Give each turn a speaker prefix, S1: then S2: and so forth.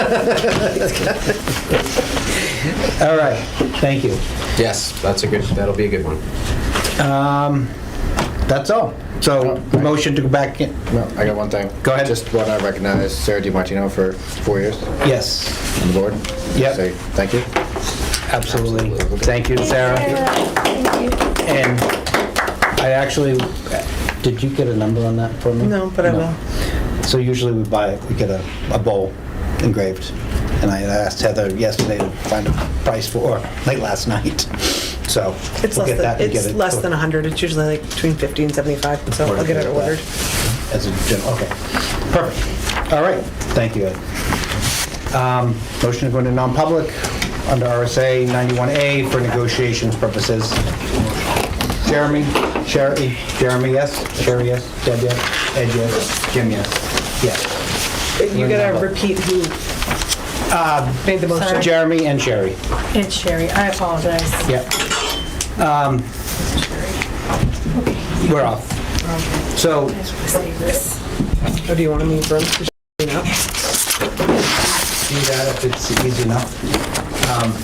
S1: All right, thank you.
S2: Yes, that's a good, that'll be a good one.
S1: Um, That's all. So, motion to go back in,
S3: No, I got one thing.
S1: Go ahead.
S3: Just want to recognize Sarah DiMartino for four years
S1: yes,
S3: on the board.
S1: Yep.
S3: Say thank you.
S1: absolutely. Thank you, Sarah.
S4: Thank you.
S1: And I actually, did you get a number on that for me?
S5: No, but I will.
S1: So usually we buy, we get a, a bowl engraved. And I asked Heather yesterday to find a price for, late last night. So
S5: It's
S1: we'll
S5: less
S1: get that
S5: than,
S1: and get
S5: it's
S1: it.
S5: less than 100. It's usually like between 50 and 75, so I'll get it ordered.
S1: As a general, okay. Perfect. All right, thank you, Ed. Um, Motion to go into non-public under RSA 91A for negotiations purposes. Jeremy, Sherry, Jeremy, yes? Sherry, yes? Deb, yes? Ed, yes? Jim, yes? Yes.
S5: You gotta repeat who made the motion.
S4: Sorry.
S1: Jeremy and Sherry,
S4: It's Sherry. I apologize.
S1: yep. Um, We're off. So,
S5: Or oh, do you want to move room? to sh- it up?
S1: see that if it's easy enough. Um,